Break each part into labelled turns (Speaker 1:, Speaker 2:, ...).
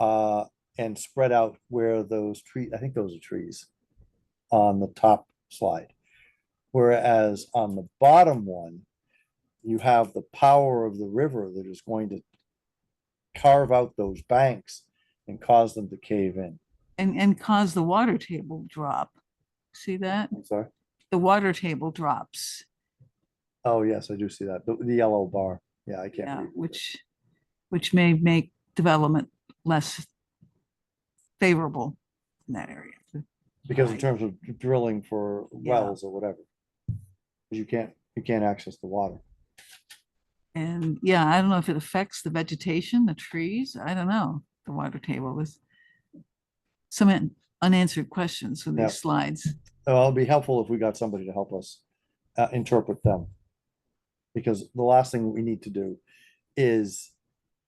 Speaker 1: uh, and spread out where those tree, I think those are trees on the top slide. Whereas on the bottom one, you have the power of the river that is going to carve out those banks and cause them to cave in.
Speaker 2: and, and cause the water table drop. See that?
Speaker 1: I'm sorry.
Speaker 2: The water table drops,
Speaker 1: Oh, yes, I do see that. The, the yellow bar. Yeah, I can't.
Speaker 2: yeah,
Speaker 1: read it.
Speaker 2: which, which may make development less favorable in that area.
Speaker 1: Because in
Speaker 2: Right.
Speaker 1: terms of drilling for
Speaker 2: Yeah.
Speaker 1: wells or whatever. 'Cause You can't, you can't access the water.
Speaker 2: And yeah, I don't know if it affects the vegetation, the trees, I don't know, the water table is some an- unanswered questions with
Speaker 1: Yeah.
Speaker 2: these slides.
Speaker 1: So it'll be helpful if we got somebody to help us uh, interpret them. Because the last thing we need to do is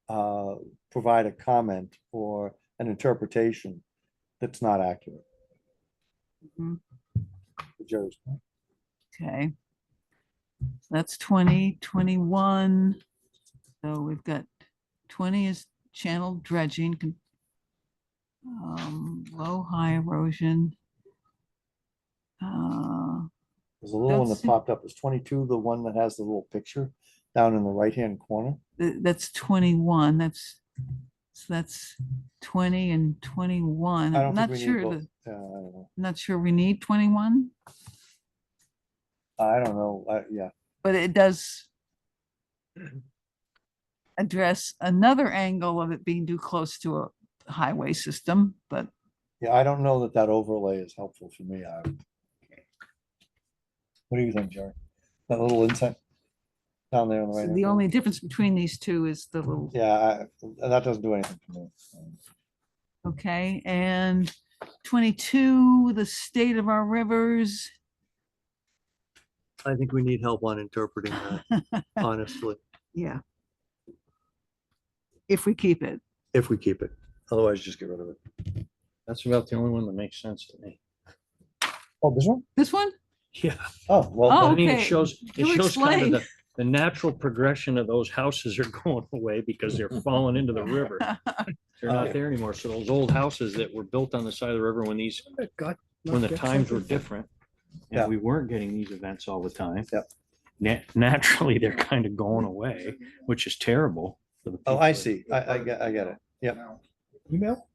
Speaker 1: uh, provide a comment or an interpretation that's not accurate.
Speaker 2: Mhm.
Speaker 1: Jerry's point.
Speaker 2: Okay. So That's twenty, twenty-one. So we've got twenty is channel dredging. con- Um, low, high erosion. Uh,
Speaker 1: There's a little one that
Speaker 2: That's-
Speaker 1: popped up. Is twenty-two the one that has the little picture down in the right-hand corner?
Speaker 2: th- that's twenty-one, that's, so that's twenty and twenty-one.
Speaker 1: I don't think
Speaker 2: I'm Mm, not
Speaker 1: we need
Speaker 2: sure,
Speaker 1: both.
Speaker 2: that-
Speaker 1: Uh, I don't know.
Speaker 2: not sure we need twenty-one,
Speaker 1: Uh, I don't know. I- Yeah,
Speaker 2: but it does address another angle of it being too close to a highway system, but
Speaker 1: yeah, I don't know that that overlay is helpful for me. I would- What do you think, Jerry? That little insight down there on the
Speaker 3: Oh,
Speaker 2: So
Speaker 1: right?
Speaker 2: The only difference between these two is the little,
Speaker 1: Yeah, I- that doesn't do anything for me. Um,
Speaker 2: okay, and twenty-two, the state of our rivers.
Speaker 1: I think we need help on interpreting that, honestly,
Speaker 2: Yeah. If we keep it,
Speaker 1: if we keep it. Otherwise, just get rid of it.
Speaker 4: That's about the only one that makes sense to me.
Speaker 1: Oh, this one?
Speaker 2: this one,
Speaker 4: Yeah.
Speaker 1: Oh,
Speaker 2: Oh.
Speaker 4: I
Speaker 1: well,
Speaker 4: mean, it
Speaker 2: Okay,
Speaker 4: shows, it
Speaker 2: you
Speaker 4: shows kind
Speaker 2: explain.
Speaker 4: of the, the natural progression of those houses are going away because they're falling into the river. They're
Speaker 1: Oh.
Speaker 4: not there anymore. So those old houses that were built on the side of the river when these, when the times were different.
Speaker 1: Yeah.
Speaker 4: And we weren't getting these events all the time.
Speaker 1: Yep.
Speaker 4: Nat- naturally, they're kind of going away, which is terrible. for the
Speaker 1: oh, I
Speaker 4: people.
Speaker 1: see. I, I get, I get it. Yep.
Speaker 5: Email?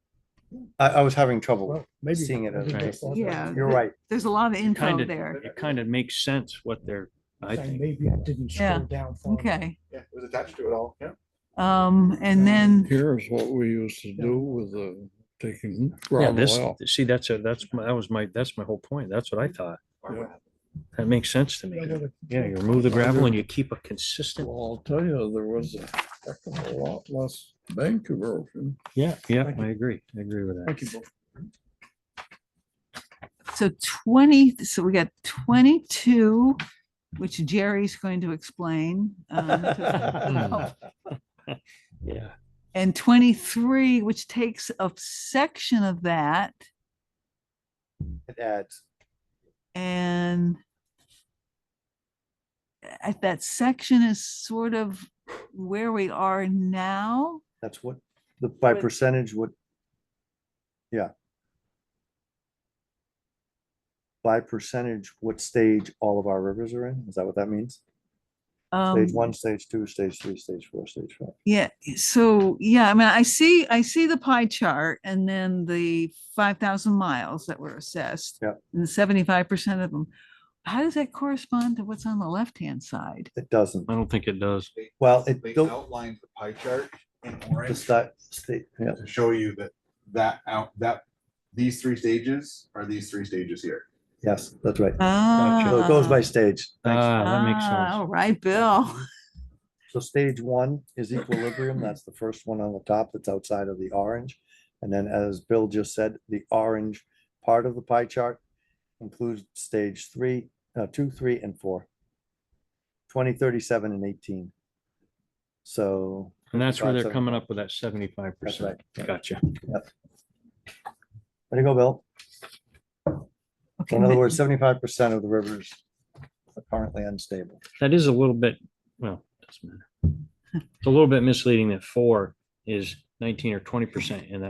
Speaker 1: I, I was having trouble.
Speaker 5: Well, maybe.
Speaker 1: Seeing it as
Speaker 4: a
Speaker 2: Yeah.
Speaker 1: You're right.
Speaker 2: there's a lot of info
Speaker 4: Kind of,
Speaker 2: there,
Speaker 4: it kind of makes sense what they're, I
Speaker 5: Saying
Speaker 4: think.
Speaker 5: Maybe I didn't
Speaker 2: Yeah.
Speaker 5: scroll down. far enough.
Speaker 2: okay,
Speaker 3: Um, Yeah, it was attached to it all, yeah.
Speaker 2: um, and then,
Speaker 6: Here's what we used to do with the taking
Speaker 4: Yeah,
Speaker 6: gravel
Speaker 4: this,
Speaker 6: out.
Speaker 4: see, that's a, that's, my that was my, that's my whole point. That's what I thought.
Speaker 6: Yeah.
Speaker 4: That makes sense to
Speaker 5: You know,
Speaker 4: me.
Speaker 5: the-
Speaker 4: Yeah, you remove the gravel and you keep a consistent.
Speaker 6: Well, I'll tell you, there was a heck of a lot less bank erosion.
Speaker 4: Yeah, yeah,
Speaker 5: Thank
Speaker 4: I agree. I agree with that.
Speaker 5: Thank you, Bill.
Speaker 2: so twenty, so we got twenty-two, which Jerry's going to explain. um, to-
Speaker 4: Yeah.
Speaker 2: And twenty-three, which takes a section of that.
Speaker 1: It adds.
Speaker 2: And at that section is sort of where we are now.
Speaker 1: That's what, the, by
Speaker 2: But-
Speaker 1: percentage, what? Yeah. By percentage, what stage all of our rivers are in? Is that what that means? Stage
Speaker 2: Um,
Speaker 1: one, stage two, stage three, stage four, stage five.
Speaker 2: yeah, so, yeah, I mean, I see, I see the pie chart and then the five thousand miles that were assessed.
Speaker 1: Yep.
Speaker 2: And seventy-five percent of them. How does that correspond to what's on the left-hand side?
Speaker 1: It doesn't.
Speaker 4: I don't think it does.
Speaker 1: Well, it,
Speaker 3: They
Speaker 1: don't-
Speaker 3: outlined the pie chart in
Speaker 1: the
Speaker 3: orange
Speaker 1: sti-
Speaker 3: to
Speaker 1: state, yeah,
Speaker 3: show you that, that out, that, these three stages are these three stages here.
Speaker 1: yes, that's right. So it
Speaker 2: Ah,
Speaker 1: goes by stage. Thanks.
Speaker 4: Ah, that makes
Speaker 2: ah,
Speaker 4: sense.
Speaker 2: All right, Bill.
Speaker 1: So stage one is equilibrium. That's the first one on the top that's outside of the orange. And then as Bill just said, the orange part of the pie chart includes stage three, uh, two, three, and four. Twenty, thirty-seven, and eighteen. So,
Speaker 4: And that's where they're
Speaker 1: Gotcha.
Speaker 4: coming up with that seventy-five
Speaker 1: that's right.
Speaker 4: percent. Gotcha.
Speaker 1: There you go, Bill. So
Speaker 2: Okay,
Speaker 1: In other
Speaker 2: ma-
Speaker 1: words, seventy-five percent of the rivers are currently unstable.
Speaker 4: That is a little bit, well, doesn't matter. It's a little bit misleading that four is nineteen or twenty percent and that